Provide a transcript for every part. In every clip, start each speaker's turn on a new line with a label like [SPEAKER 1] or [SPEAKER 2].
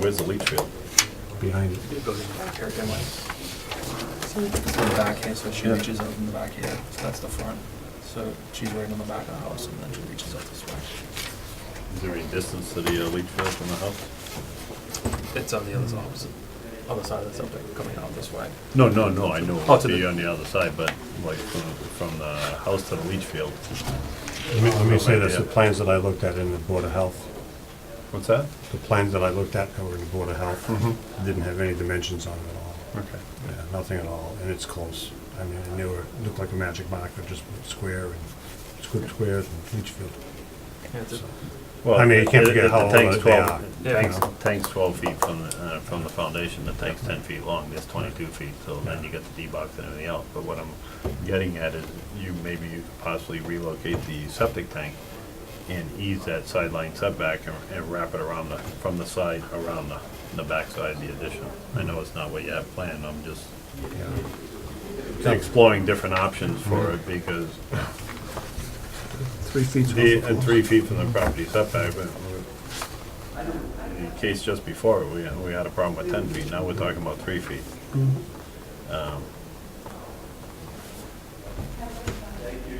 [SPEAKER 1] Where's the leach field?
[SPEAKER 2] behind it.
[SPEAKER 3] It goes in the back here, doesn't it? It's in the back here, so she
[SPEAKER 1] Yeah.
[SPEAKER 3] reaches out in the back here, so that's the front. So she's right on the back of the house, and then she reaches out this way.
[SPEAKER 1] Is there any distance to the uh, leach field from the house?
[SPEAKER 3] It's on the other side, opposite, other side of the subject, coming out this way.
[SPEAKER 1] No, no, no, I know it
[SPEAKER 3] Oh,
[SPEAKER 1] would
[SPEAKER 3] to
[SPEAKER 1] be
[SPEAKER 3] the-
[SPEAKER 1] on the other side, but like from, from the house to the leach field.
[SPEAKER 2] Let me, let me say this, the
[SPEAKER 1] Yeah.
[SPEAKER 2] plans that I looked at in the Board of Health,
[SPEAKER 1] What's that?
[SPEAKER 2] the plans that I looked at that were in the Board of Health,
[SPEAKER 3] Mm-hmm.
[SPEAKER 2] didn't have any dimensions on it at all.
[SPEAKER 1] Okay.
[SPEAKER 2] Yeah, nothing at all, and it's close. I mean, and they were, looked like a magic marker, just square and square squares and leach field.
[SPEAKER 3] Yeah, it's a-
[SPEAKER 2] So,
[SPEAKER 1] Well,
[SPEAKER 2] I mean, you can't
[SPEAKER 1] the-
[SPEAKER 2] forget
[SPEAKER 1] the- the
[SPEAKER 2] how
[SPEAKER 1] tank's
[SPEAKER 2] low they
[SPEAKER 1] 12
[SPEAKER 2] are,
[SPEAKER 1] the
[SPEAKER 3] you
[SPEAKER 1] Tank's,
[SPEAKER 2] know.
[SPEAKER 1] tank's twelve feet from, the- uh, from the foundations, the tank's ten feet long, this twenty-two feet, so then you get the D-box and everything else. But what I'm getting at is you, maybe you could possibly relocate the septic tank and ease that sideline setback and, and wrap it around the, from the side, around the, the backside of the addition. I know it's not what you have planned, I'm just
[SPEAKER 2] yeah.
[SPEAKER 1] exploring different options for it because
[SPEAKER 2] Three feet's
[SPEAKER 1] the,
[SPEAKER 2] awful
[SPEAKER 1] and
[SPEAKER 2] close.
[SPEAKER 1] three feet from the property setback, but we- the case just before, we, we had a problem with ten feet, now we're talking about three feet. Um,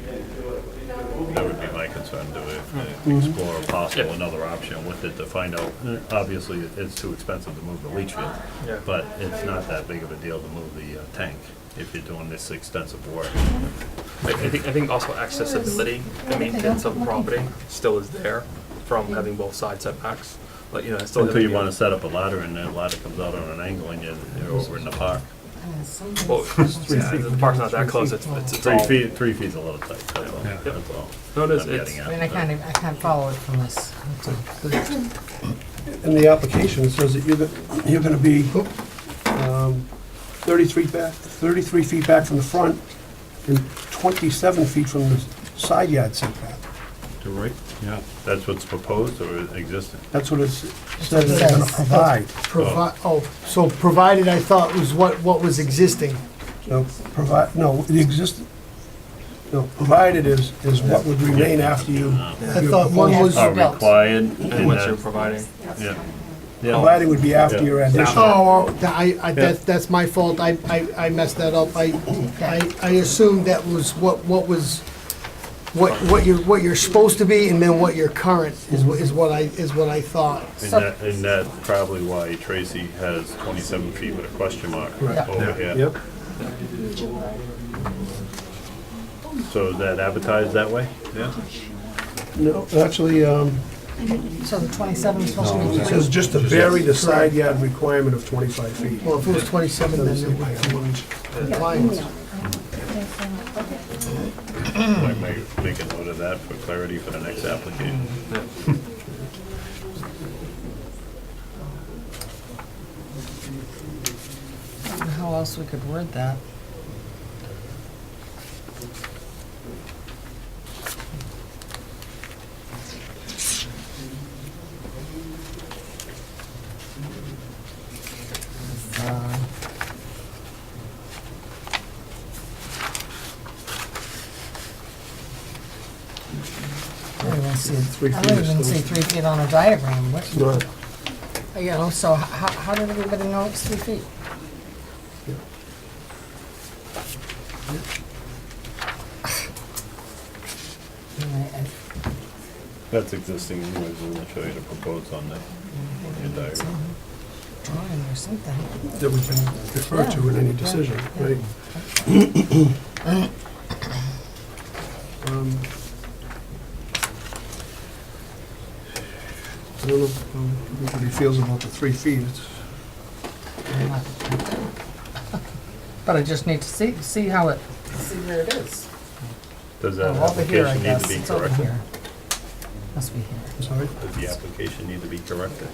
[SPEAKER 1] That would be my concern, to uh, explore a possible another option with it to find out, obviously, it- it's too expensive to move the leach field.
[SPEAKER 3] Yeah.
[SPEAKER 1] But it's not that big of a deal to move the uh, tank if you're doing this extensive work.
[SPEAKER 3] I I think, I think also accessibility, the maintenance of the property still is there from having both side setbacks, but you know, it's still.
[SPEAKER 1] Until you wanna set up a ladder and that ladder comes out on an angle and you're, you're over in the park.
[SPEAKER 3] Well, yeah, the park's not that close, it's, it's it's
[SPEAKER 1] Three
[SPEAKER 3] all.
[SPEAKER 1] feet, three feet's a little tight, that's all,
[SPEAKER 2] Yeah.
[SPEAKER 1] that's all.
[SPEAKER 3] No, it is,
[SPEAKER 1] I'm
[SPEAKER 3] it's-
[SPEAKER 1] getting
[SPEAKER 4] I
[SPEAKER 1] at.
[SPEAKER 4] mean, I can't, even- I can't follow it from this.
[SPEAKER 5] In the application, it says that you're, go- you're gonna be um, 33 back, 33 feet back from the front and 27 feet from the side yard setback.
[SPEAKER 1] To right? Yeah. That's what's proposed or existing?
[SPEAKER 5] That's what it says they're gonna provide.
[SPEAKER 6] Provi, oh, so provided, I thought was what, what was existing.
[SPEAKER 5] No, provide, no, the exist, no, provided is, is what would remain after you.
[SPEAKER 6] I thought one was,
[SPEAKER 1] Are
[SPEAKER 4] Yes. Built.
[SPEAKER 1] required
[SPEAKER 3] And
[SPEAKER 1] in
[SPEAKER 3] what you're
[SPEAKER 1] that,
[SPEAKER 3] providing.
[SPEAKER 1] yeah.
[SPEAKER 5] Provided would be after your addition.
[SPEAKER 6] oh, oh, I, I, that's, that's my fault, I, I, I messed that up. I, I, I assumed that was what, what was, what, what you're, what you're supposed to be and then what your current is, what is what I, is what I thought.
[SPEAKER 1] And that, and that's probably why Tracy has twenty-seven feet with a question mark
[SPEAKER 5] Right.
[SPEAKER 1] over here.
[SPEAKER 5] Yep,
[SPEAKER 1] So is that advertised that way? Yeah.
[SPEAKER 5] no, actually, um,
[SPEAKER 4] So the twenty-seven is supposed to be
[SPEAKER 5] it
[SPEAKER 4] three.
[SPEAKER 5] says just to vary the side yard requirement of 25 feet.
[SPEAKER 6] Well, if it was twenty-seven, then it would be compliance.
[SPEAKER 4] Mm-hmm.
[SPEAKER 1] I might make a note of that for clarity for the next application.
[SPEAKER 4] Mm-hmm. I don't know How else we could word that? Uh, I don't even see,
[SPEAKER 5] Three
[SPEAKER 4] I
[SPEAKER 5] feet
[SPEAKER 4] don't
[SPEAKER 5] is
[SPEAKER 4] even
[SPEAKER 5] still-
[SPEAKER 4] see three feet on a diagram, what,
[SPEAKER 5] Right.
[SPEAKER 4] you know, so h- how, how did everybody know it's three feet? Anyway, I-
[SPEAKER 1] That's existing anyways, we're gonna show you the proposed on that, on your diagram.
[SPEAKER 4] drawing or something.
[SPEAKER 5] that we can refer to in any decision, right? Um, I don't know how everybody feels about the three feet. It's-
[SPEAKER 4] But I just need to see, see how it, see where it is.
[SPEAKER 1] Does that
[SPEAKER 4] Oh, Over here, I
[SPEAKER 1] application need to
[SPEAKER 4] guess,
[SPEAKER 1] be
[SPEAKER 4] it's over
[SPEAKER 1] corrected?
[SPEAKER 4] here. Must be here.
[SPEAKER 5] I'm sorry?
[SPEAKER 1] Does the application need to be corrected?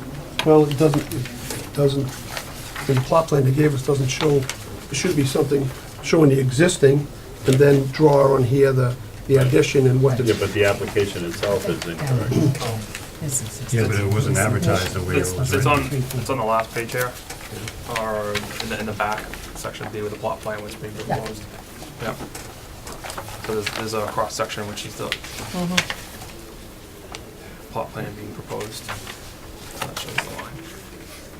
[SPEAKER 5] Well, it doesn't, it doesn't, the plot plan they gave us doesn't show, it should be something showing the existing and then draw on here the, the addition and what
[SPEAKER 1] Yeah,
[SPEAKER 5] the,
[SPEAKER 1] but the application itself is incorrect.
[SPEAKER 4] Down. This is-
[SPEAKER 2] Yeah, but it wasn't advertised the way it
[SPEAKER 3] It's,
[SPEAKER 2] was
[SPEAKER 3] it's on,
[SPEAKER 2] written.
[SPEAKER 3] it's on the last page here, or in the, in the back, section B with the plot plan which being
[SPEAKER 4] Yeah.
[SPEAKER 3] proposed. Yeah. So there's, there's a cross-section which is the
[SPEAKER 4] Mhm.
[SPEAKER 3] plot plan being proposed.